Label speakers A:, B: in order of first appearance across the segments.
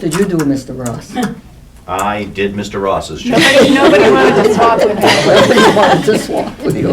A: Did you do, Mr. Ross?
B: I did Mr. Ross's job.
C: Nobody, nobody wanted to swap with
A: Whatever
C: me.
A: you wanted to swap with you.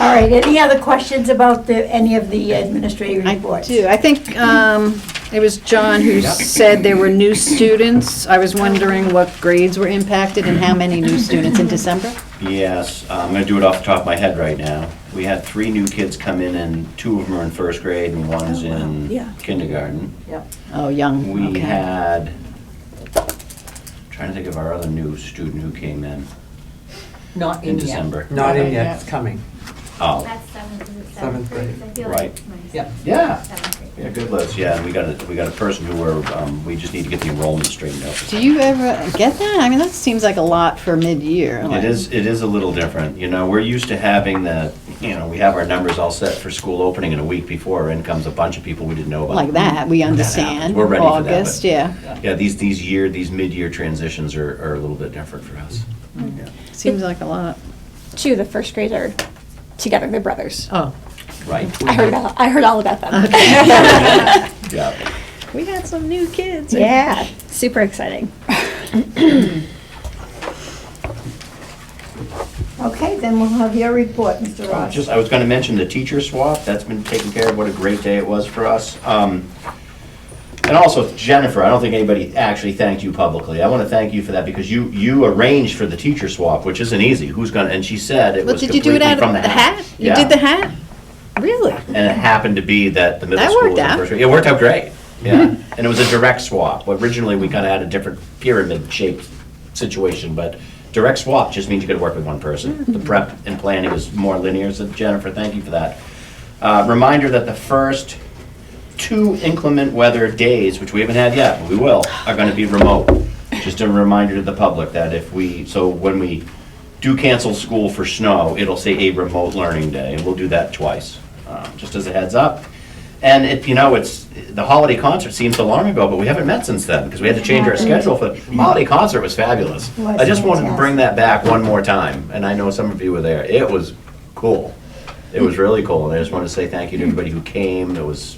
C: All right, any other questions about the, any of the administrative reports?
D: do. I think um, it was John who said there were new students. I was wondering what grades were impacted and how many new students in December?
B: Yes, I'm gonna do it off the top of my head right now. We had three new kids come in, and two of them are in first grade, and one's
C: Oh, wow. Yeah.
B: in kindergarten.
C: Yep.
D: Oh, young,
B: We
D: okay.
B: had, trying to think of our other new student who came in
A: Not
B: in
A: in yet.
B: December.
E: Not in yet, it's coming.
B: Oh,
F: That's seventh, is it
E: Seventh
F: seventh grade?
E: grade.
F: I feel like
B: Right.
F: it's my
E: Yep.
B: yeah,
F: seventh grade.
B: yeah, good list, yeah, and we got a, we got a person who were, um, we just need to get the enrollment straightened out.
D: Do you ever get that? I mean, that seems like a lot for mid-year. like-
B: It is, it is a little different, you know, we're used to having the, you know, we have our numbers all set for school opening in a week before, in comes a bunch of people we didn't know about.
D: Like that, we
B: happens.
D: understand.
B: We're ready for that, but-
D: August, yeah.
B: Yeah, these, these year, these mid-year transitions are, are a little bit different for us. Yeah.
D: Seems like a lot.
G: two, the first grade are together. They're brothers.
D: Oh.
B: Right,
G: I heard about, I heard all about them.
B: yeah.
D: We had some new kids.
G: yeah, super exciting.
C: Okay, then we'll have your report, Mr.
B: Oh,
C: Ross.
B: Just, I was gonna mention the teacher swap, that's been taken care of, what a great day it was for us. Um, And also Jennifer, I don't think anybody actually thanked you publicly, I wanna thank you for that, because you, you arranged for the teacher swap, which isn't easy, who's gonna, and she said it
D: Well,
B: was
D: did you do it
B: completely
D: out
B: from
D: of
B: the
D: the
B: hat.
D: hat? You did the hat? Really?
B: And it happened to be that the middle
D: That
B: school
D: worked
B: was the
D: out.
B: first grade. It worked out great, yeah, and it was a direct swap, originally we kinda had a different pyramid shaped situation, but direct swap just means you could work with one
D: Mm-hmm.
B: person. The prep and planning was more linear, so Jennifer, thank you for that. Uh, Reminder that the first two inclement weather days, which we haven't had yet, but we will, are gonna be remote. Just a reminder to the public that if we, so when we do cancel school for snow, it'll say a remote learning day, and we'll do that twice, um, just as a heads up. And it, you know, it's, the holiday concert seems so long ago, but we haven't met since then, because we had to change our schedule for, holiday concert was fabulous.
C: Was
B: I just wanted to
C: fantastic.
B: bring that back one more time, and I know some of you were there, it was cool. It was really cool, and I just wanted to say thank you to everybody who came. It was,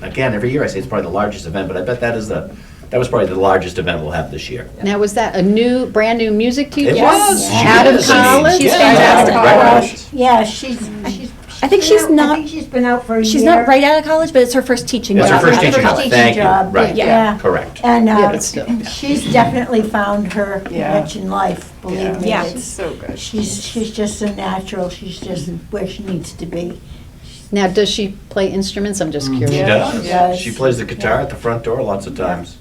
B: again, every year I say it's probably the largest event, but I bet that is the, that was probably the largest event we'll have this year.
D: Now, was that a new, brand-new music teacher?
B: It was. She
D: Out of
B: is. I mean,
D: college?
G: She's
B: yeah,
G: fantastic.
B: right out.
C: Yeah, she's, she's.
G: I think she's
C: been out- I
G: not-
C: think she's been out for a year.
G: She's not right out of college, but it's her first teaching
B: It's her
G: job.
B: first
C: Yeah,
B: teaching
C: first
B: job,
C: teaching
B: thank you,
C: job,
B: right,
C: yeah.
B: yeah, correct.
C: And
D: Yeah,
C: uh,
D: but still.
C: she's definitely found her
E: Yeah.
C: niche in life, believe me.
G: Yeah.
C: It's-
H: So good.
C: She's, she's just a natural, she's just where she needs to be.
D: Now, does she play instruments? I'm just curious.
B: She does,
C: Yes.
B: she plays the guitar at the front door lots of times.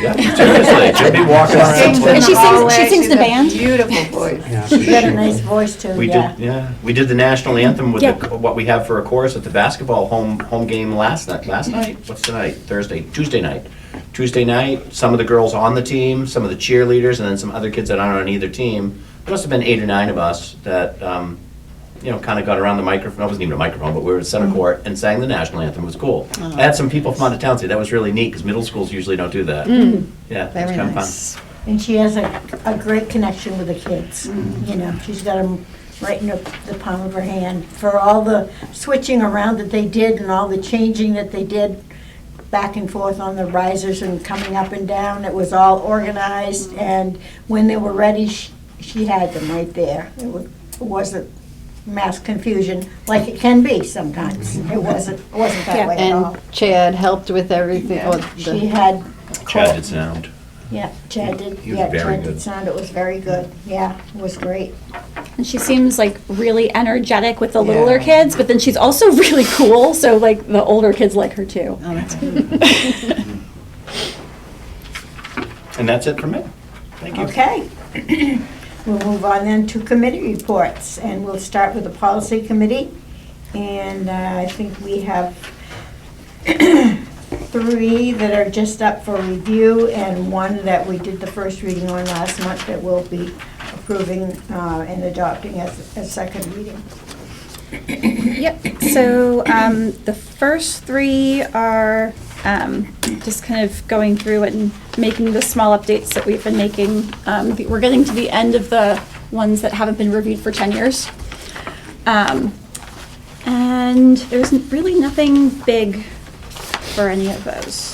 B: Yeah, seriously, she'll be walking
H: Sings
B: around.
H: in
G: And
H: the
G: she sings-
H: hallway.
G: she sings
H: She's
G: in the
H: a
G: band.
H: Beautiful voice.
E: Yeah.
C: She's got a nice voice too,
B: We
C: yeah.
B: did, yeah, we did the national anthem with
G: Yeah.
B: the- what we have for a chorus at the basketball home, home game last night, last night? What's tonight? Thursday, Tuesday night. Tuesday night, some of the girls on the team, some of the cheerleaders, and then some other kids that aren't on either team. There must have been eight or nine of us that, um, you know, kind of got around the microphone, it wasn't even a microphone, but we were in center court and sang the national anthem, it was cool. I had some people from out of town say that was really neat, because middle schools usually don't do that. Yeah, it was
D: Very
B: kind of fun.
D: nice.
C: And she has a, a great connection with the kids, you know, she's got them right in the the palm of her hand for all the switching around that they did and all the changing that they did back and forth on the risers and coming up and down, it was all organized, and when they were ready, she, she had them right there. It wa- it wasn't mass confusion, like it can be sometimes, it wasn't, it wasn't that way at all.
D: And Chad helped with everything. oh, the-
C: She had.
B: Chad did sound.
C: Yeah, Chad did,
B: He was
C: yeah,
B: very
C: Chad did
B: good.
C: sound, it was very good, yeah, it was great.
G: And she seems like really energetic with the littler
E: Yeah.
G: kids, but then she's also really cool. So like the older kids like her too.
D: Oh, that's good.
B: And that's it from me. Thank you.
C: Okay. We'll move on then to committee reports, and we'll start with the policy committee. And uh, I think we have three that are just up for review, and one that we did the first reading on last month that we'll be approving uh, and adopting as a second reading.
H: Yep, so um, the first three are um, just kind of going through and making the small updates that we've been making. Um, the- We're getting to the end of the ones that haven't been reviewed for 10 years. Um, And there's really nothing big for any of those.